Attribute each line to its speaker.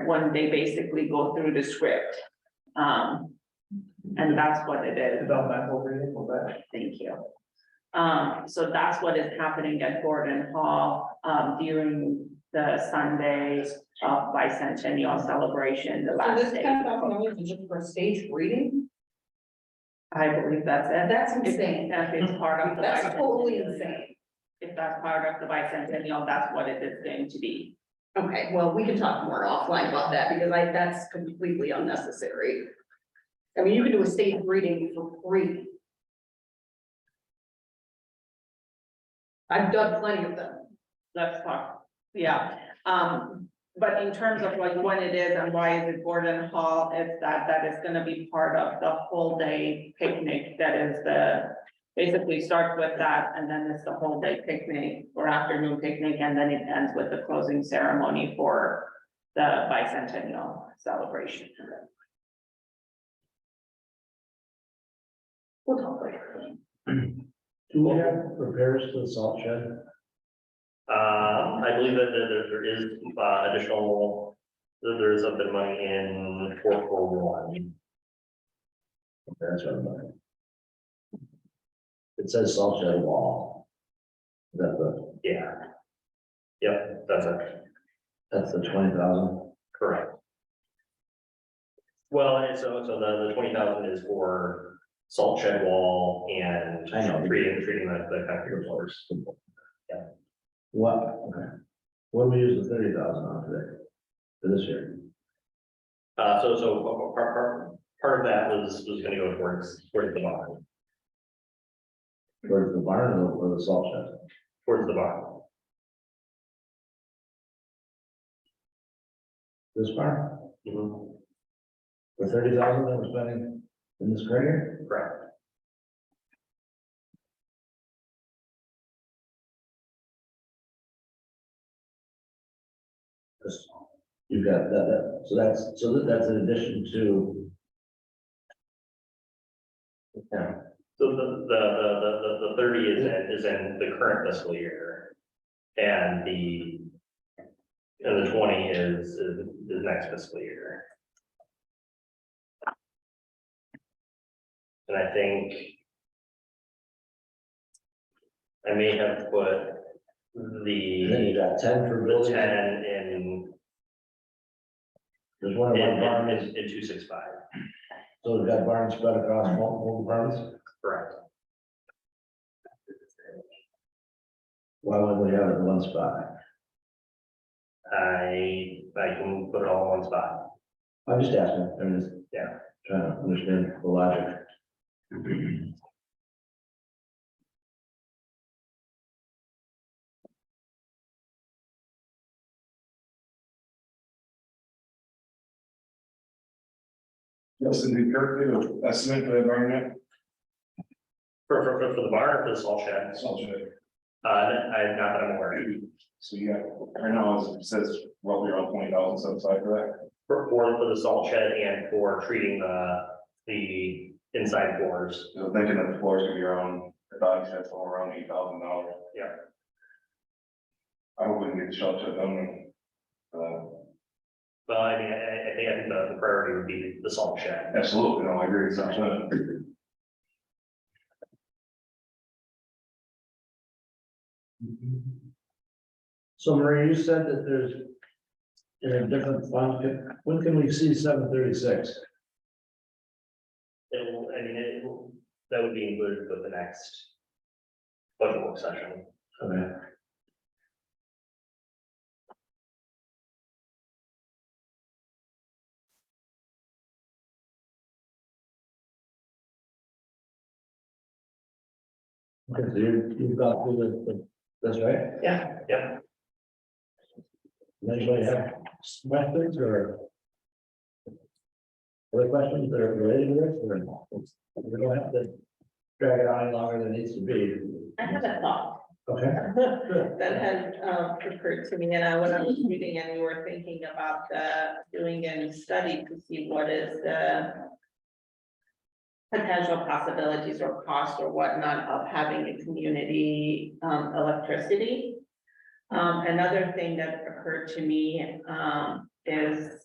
Speaker 1: where, when they basically go through the script. Um, and that's what it is.
Speaker 2: About that whole thing, well, that-
Speaker 1: Thank you. Um, so that's what is happening at Gordon Hall, um, during the Sunday of bicentennial celebration, the
Speaker 3: So
Speaker 1: last
Speaker 3: this
Speaker 1: day.
Speaker 3: kind of opportunity is just for stage reading?
Speaker 1: I believe that's it.
Speaker 3: That's insane.
Speaker 1: If it's part of the.
Speaker 3: That's totally
Speaker 1: bicentennial.
Speaker 3: insane.
Speaker 1: If that's part of the bicentennial, that's what it is going to be.
Speaker 3: Okay, well, we can talk more offline about that because I, that's completely unnecessary. I mean, you can do a stage reading for free. I've done plenty of them.
Speaker 1: Let's talk, yeah. Um, but in terms of like when it is and why is it Gordon Hall, it's that, that is gonna be part of the whole day picnic that is the. Basically starts with that and then it's the whole day picnic or afternoon picnic and then it ends with the closing ceremony for the bicentennial celebration.
Speaker 3: We'll talk later.
Speaker 4: Do we have repairs to the salt shed?
Speaker 5: Uh, I believe that there, there- there is uh, additional, there- there is a bit of money in four four one.
Speaker 4: That's what I'm wondering. It says salt shed wall. Is that the,
Speaker 5: Yeah. Yep, that's it,
Speaker 4: that's the twenty thousand?
Speaker 5: correct. Well, and so, so the, the twenty thousand is for salt shed wall and
Speaker 4: I know.
Speaker 5: treating, treating the, the concrete floors. Yeah.
Speaker 4: What, okay. what do we use the thirty thousand on today? For this year?
Speaker 5: Uh, so, so uh, part, part, part of that was, was gonna go towards, towards the bond,
Speaker 4: Towards the barn or or the salt shed?
Speaker 5: towards the bond.
Speaker 4: This barn?
Speaker 5: Mhm,
Speaker 4: The thirty thousand that we're spending in this current year?
Speaker 5: Correct.
Speaker 4: This- You've got that, that, so that's, so that- that's in addition to. Yeah,
Speaker 5: So the, the, the, the, the- the thirty is in, is in the current fiscal year. And the. And the twenty is, is the next fiscal year. And I think. I may have put
Speaker 4: and then you
Speaker 5: the
Speaker 4: got ten for
Speaker 5: the
Speaker 4: building.
Speaker 5: ten in,
Speaker 4: There's one,
Speaker 5: in,
Speaker 4: one barn,
Speaker 5: in,
Speaker 4: is-
Speaker 5: in two six five,
Speaker 4: so we've got barns spread across multiple barns,
Speaker 5: correct?
Speaker 4: why wouldn't we have it in one spot?
Speaker 5: I, I can put it all in one spot.
Speaker 4: I'm just asking, I'm just.
Speaker 5: Yeah.
Speaker 4: Trying to understand the logic.
Speaker 6: Yes, and the current estimate for the environment,
Speaker 5: For, for, for- for the barn or for the salt shed?
Speaker 6: salt shed.
Speaker 5: Uh, I, not that I'm aware. of.
Speaker 6: So you got, right now, it says roughly around twenty thousand set aside for
Speaker 5: For, for, for the salt shed and for treating the, the inside floors.
Speaker 6: that. So thinking that the floor is gonna be around, the dog said somewhere around eight thousand dollars.
Speaker 5: Yeah.
Speaker 6: I hope we can get the shelter done. Uh,
Speaker 5: Well, I mean, I, I- I think, I think the the priority would be the salt shed.
Speaker 6: absolutely, no, I agree with that.
Speaker 4: So Marie, you said that there's. There are different funds, when can we see seven thirty-six?
Speaker 5: It will, I mean, it will, that would be included with the next budget work session.
Speaker 4: Okay. Okay, so you, you've got through the, the- that's right,
Speaker 5: Yep,
Speaker 4: anybody have questions or? Other questions that are related to this, or we don't have to drag it on any longer than it needs to be?
Speaker 7: I have a thought
Speaker 4: Okay,
Speaker 7: that had um, occurred to me, and I, when I was reading and we were thinking about the, doing a study to see what is the potential possibilities or cost or whatnot of having a community um, electricity. Um, Another thing that occurred to me um, is